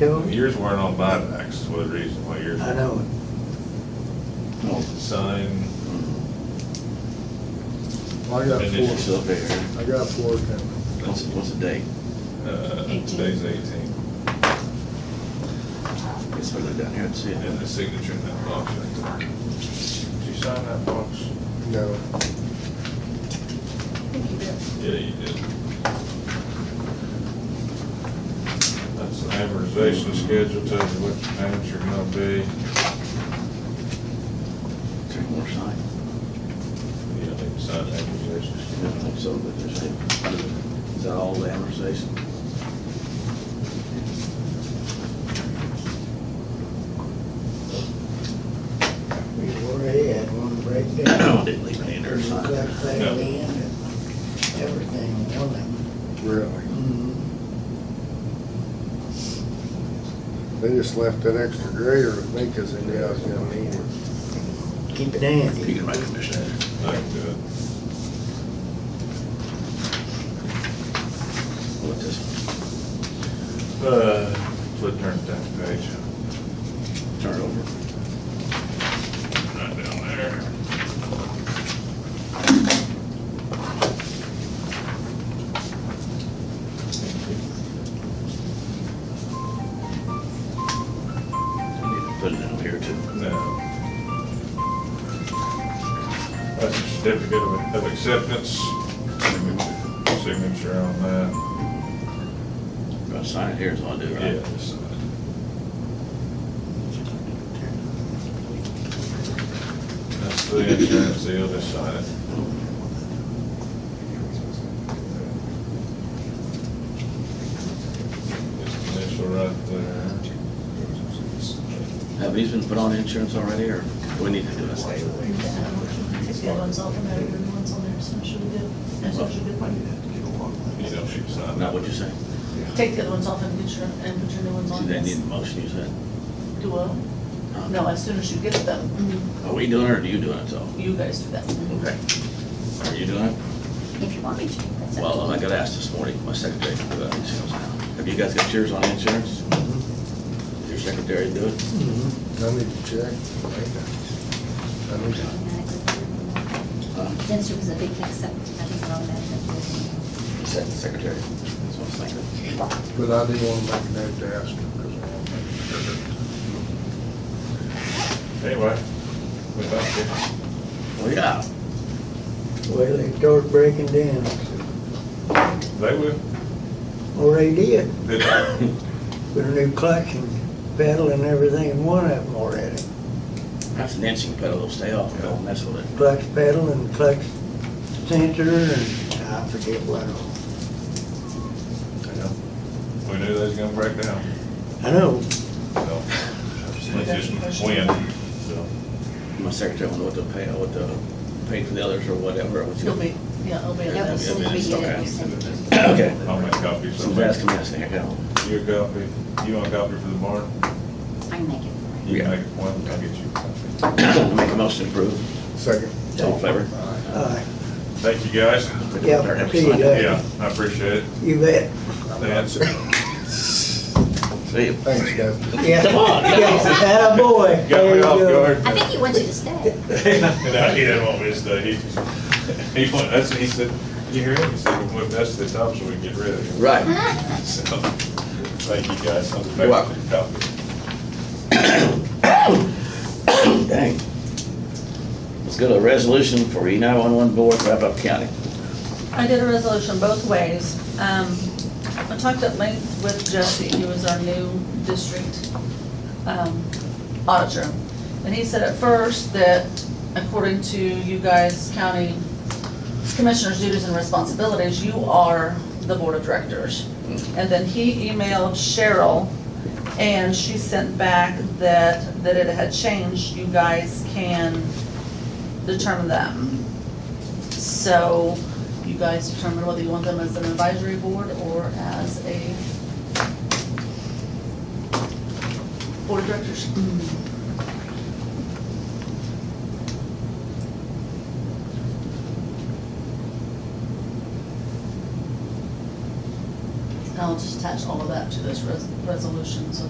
Joe? Yours weren't on buybacks, is one of the reasons why yours. I know. No. Sign, I got And it's four, Still there. I got four coming. What's, what's the date? uh, Eighteen. today's eighteen, It's further down here, I'd see and then it. the signature in that box right there. Did you sign that box? No, Yeah, you did. That's the amortization schedule, tells you what your payments are gonna be. Three more sign. Yeah, they sign the amortization I schedule. don't think so, but there's it. Is that all the amortization? We already had one breakdown. Didn't leave any under There's a sign. crack there at the end and everything on it. really. Mhm. They just left that extra grader with me because they knew I was gonna need it. Keep it handy. You can make a mission. Like, uh, What this, Uh, flip turn to that page. turn it over. Right down there. I need to Put it in here too. No. That's a certificate of of acceptance. Signature on that. Gotta sign it here is what I do, right? Yes. That's the insurance deal, just sign it. Just initial right there. Have these been put on insurance already, or we need to do this? If the other one's all coming out, the other one's on there, so it should be good. That's what should be good. You don't need to sign Not that. what you say. Take the other ones off and get your, and put your new ones Do on. they need a yes. motion, you said? Do what? No, as soon as you get Mm-hmm. them, Are we doing it, or are you doing it, though? you guys do that. Okay. Are you doing it? If you want me to, that's up to Well, you. I got asked this morning, my secretary can do that insurance now. Have you guys got yours on insurance? Did your secretary do it? Mhm. I need to check. I need to- Huh? Since there was a big acceptance, I think we're all that. The sec- Secretary, that's what I was thinking. But I do wanna make a note to ask them because I wanna make sure. Anyway, we back here. Well, yeah, Well, they start breaking down. They will. Or they did. Did With a new clutch and pedal and everything, in one of them already. that's an inching pedal, it'll stay off, don't mess with it. Clutch pedal and clutch sensor and I forget what all. We knew they was gonna break down, I know, so. Let's just win, so. My secretary will know what to pay, what to pay for the others or whatever. what you- You'll be, yeah, it'll be. That was Yeah, so yeah, we it's did okay. it, we sent it. Okay. I'll make copies. So Jazz, come here, stand here, You a copy, you want a copy for the barn? I can make it. You Yeah. make one, I'll get you a copy. go. Make a motion to approve. Second. All in favor? alright, Thank you, guys. Uh, yeah, see you Yeah, later. I appreciate it. You bet. That's it. See you. Thanks, guys. Yeah. Come on, come on. Yeah, attaboy. Got There me you off go. guard. I think he wants you to stay. No, he didn't want me to stay. He, he wanted, that's, he said, you hear him? He said, well, that's the top so we can get rid of him. Right. So, thank you, guys. I'll You're welcome. make a copy. Dang. Let's go to a resolution for E nine-one-one board for Wrap Up County. I did a resolution both ways. Um, I talked at length with Jesse, who is our new district um, auditor. And he said at first that according to you guys, county commissioners' duties and responsibilities, you are the board of directors. And then he emailed Cheryl, and she sent back that, that it had changed. You guys can determine them. So you guys determine whether you want them as an advisory board or as a board of directors. I'll just attach all of that to this res- resolution so